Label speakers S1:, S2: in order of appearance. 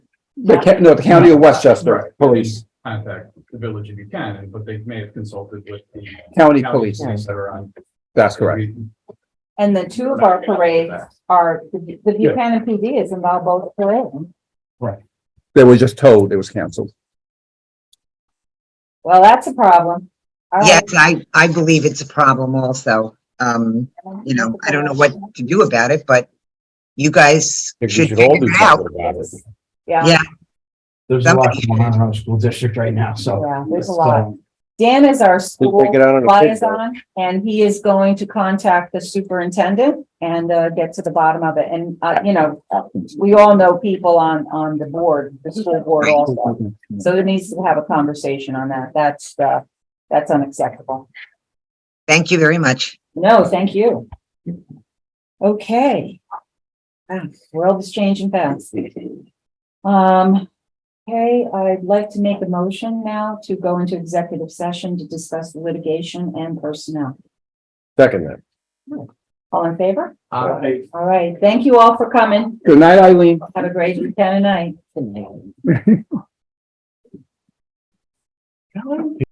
S1: The
S2: Yeah,
S1: ca- no, the county of Westchester
S3: Right.
S1: Police,
S3: Contact the village if you can, and- but they may have consulted with the.
S1: county
S3: county
S1: police,
S3: police That are on.
S1: that's correct.
S2: and the two of our parades are, the the
S3: Yeah.
S2: Buchanan PD is involved both parades.
S1: They were just told it was canceled.
S2: Well, that's a problem. All
S4: Yes,
S2: right.
S4: I, I believe it's a problem also. Um, you know, I don't know what to do about it, but you guys
S5: think we
S4: should
S5: should
S4: figure
S5: all do
S4: it out.
S5: something about it.
S2: Yeah,
S4: Yeah.
S6: There's a lot
S4: Somebody-
S6: going on in our school district right now, so.
S2: yeah, there's a
S6: it's,
S2: lot.
S6: um,
S2: Dan is our
S5: We'll
S2: school
S5: take it out on a picture.
S2: liaison, and he is going to contact the superintendent and, uh, get to the bottom of it. And, uh, you know, we all know people on, on the board, the school board also. So there needs to have a conversation on that. That's, uh, that's unacceptable.
S4: Thank you very much.
S2: No, thank you. Okay. Ah, World is changing fast. Um, okay, I'd like to make a motion now to go into executive session to discuss litigation and personnel.
S5: Second that.
S2: All in favor?
S3: Uh, I-
S2: All right, thank you all for coming.
S1: Good night, Eileen.
S2: Have a great weekend and night.